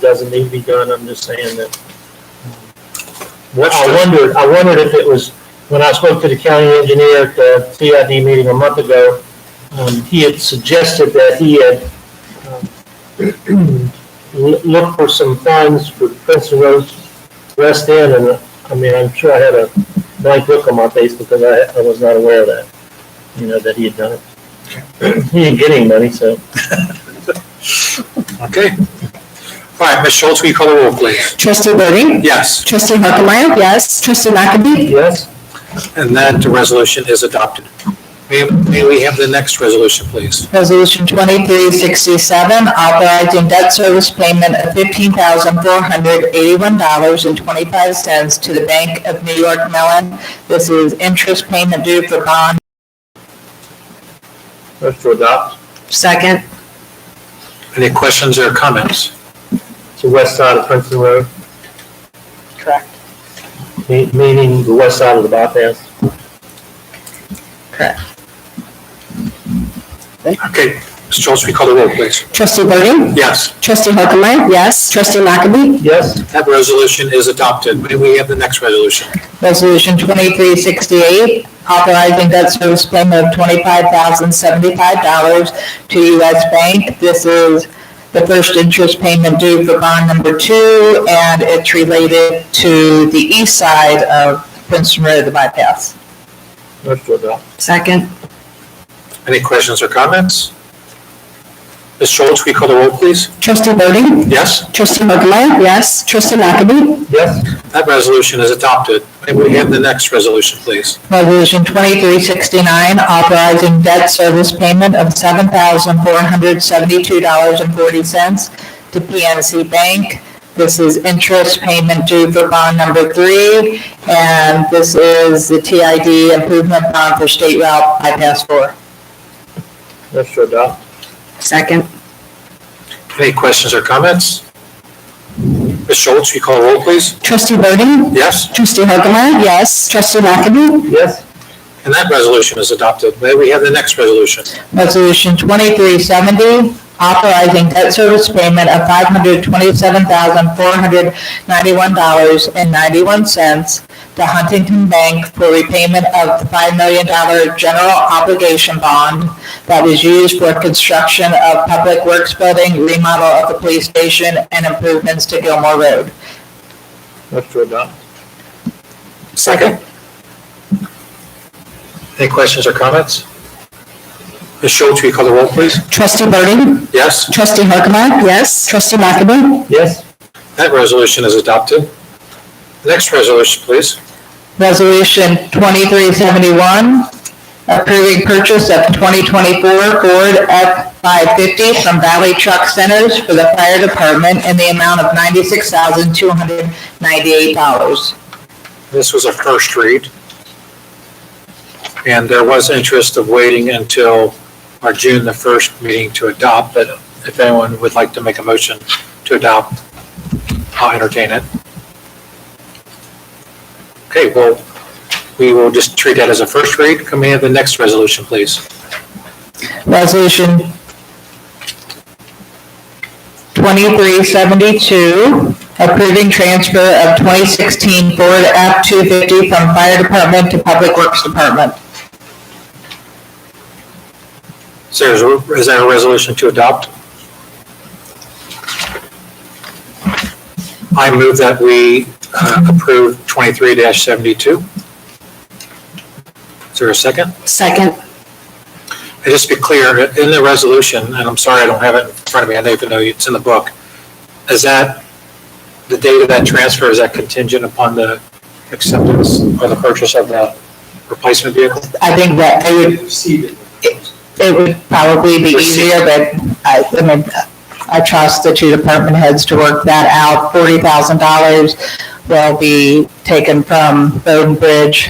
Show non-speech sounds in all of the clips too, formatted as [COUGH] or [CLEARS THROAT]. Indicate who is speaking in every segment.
Speaker 1: doesn't need to be done, I'm just saying that. Well, I wondered, I wondered if it was, when I spoke to the county engineer at the CID meeting a month ago, um, he had suggested that he had, um, loo- looked for some funds for Princeton Road West End, and, uh, I mean, I'm sure I had a blank look on my face because I, I was not aware of that, you know, that he had done it. [CLEARS THROAT] He didn't get any money, so.
Speaker 2: Okay. All right, Ms. Schultz, will you call the roll, please?
Speaker 3: Trustee Burden?
Speaker 2: Yes,
Speaker 3: Trustee Harkemaia? Yes. Trustee McAdoo?
Speaker 1: Yes?
Speaker 2: and that resolution is adopted. May may we have the next resolution, please?
Speaker 3: Resolution 2367, authorizing debt service payment of $15,481.25 to the Bank of New York Mellon. This is interest payment due for bond.
Speaker 1: Motion to adopt.
Speaker 3: Second.
Speaker 2: Any questions or comments?
Speaker 1: It's the west side of Princeton Road,
Speaker 3: Correct.
Speaker 1: me- meaning the west side of the bypass.
Speaker 3: Correct.
Speaker 2: Okay, Ms. Schultz, will you call the roll, please?
Speaker 3: Trustee Burden?
Speaker 2: Yes,
Speaker 3: Trustee Harkemaia? Yes. Trustee McAdoo?
Speaker 1: Yes?
Speaker 2: that resolution is adopted. May we have the next resolution?
Speaker 3: Resolution 2368, authorizing debt service payment of $25,075 to U.S. Bank. This is the first interest payment due for bond number two, and it's related to the east side of Princeton Road, the bypass.
Speaker 1: Motion to adopt.
Speaker 3: Second.
Speaker 2: Any questions or comments? Ms. Schultz, will you call the roll, please?
Speaker 3: Trustee Burden?
Speaker 2: Yes,
Speaker 3: Trustee Harkemaia? Yes. Trustee McAdoo?
Speaker 1: Yes?
Speaker 2: that resolution is adopted. May we have the next resolution, please?
Speaker 3: Resolution 2369, authorizing debt service payment of $7,472.40 to PNC Bank. This is interest payment due for bond number three, and this is the TID improvement bond for State Route Bypass 4.
Speaker 1: Motion to adopt.
Speaker 3: Second.
Speaker 2: Any questions or comments? Ms. Schultz, will you call the roll, please?
Speaker 3: Trustee Burden?
Speaker 2: Yes,
Speaker 3: Trustee Harkemaia? Yes. Trustee McAdoo?
Speaker 1: Yes?
Speaker 2: and that resolution is adopted. May we have the next resolution?
Speaker 3: Resolution 2370, authorizing debt service payment of $527,491.91 to Huntington Bank for repayment of the $5 million general obligation bond that was used for construction of Public Works Building, remodel of the police station, and improvements to Gilmore Road.
Speaker 1: Motion to adopt.
Speaker 2: Second. Any questions or comments? Ms. Schultz, will you call the roll, please?
Speaker 3: Trustee Burden?
Speaker 2: Yes,
Speaker 3: Trustee Harkemaia? Yes. Trustee McAdoo?
Speaker 1: Yes?
Speaker 2: that resolution is adopted. Next resolution, please.
Speaker 3: Resolution 2371, approving purchase of 2024 Ford F-550 from Valley Truck Centers for the fire department in the amount of $96,298.
Speaker 2: This was a first read. And there was interest of waiting until our June the 1st meeting to adopt, but if anyone would like to make a motion to adopt, I'll entertain it. Okay, well, we will just treat that as a first read. Can we have the next resolution, please?
Speaker 3: Resolution 2372, approving transfer of 2016 Ford F-250 from fire department to public works department.
Speaker 2: So is is there a resolution to adopt? I move that we uh, approve 23-72. Is there a second?
Speaker 3: Second.
Speaker 2: And Just to be clear, in the resolution, and I'm sorry I don't have it in front of me, I don't even know it's in the book, is that, the date of that transfer, is that contingent upon the acceptance or the purchase of the replacement vehicle?
Speaker 3: I think that they would It would probably be easier, but I, I mean, I trust the two department heads to work that out. Forty thousand dollars will be taken from Bowden Bridge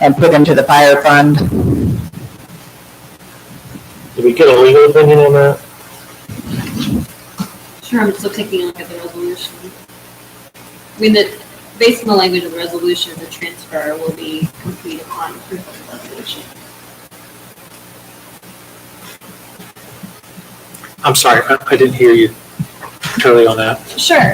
Speaker 3: and put into the fire fund.
Speaker 1: Did we get a legal opinion on that?
Speaker 4: Sure, I'm still taking a look at the resolution. I mean, the, based on the language of the resolution, the transfer will be complete upon approval of the resolution.
Speaker 2: I'm sorry, I I didn't hear you.
Speaker 5: Turley on that?
Speaker 2: Sure.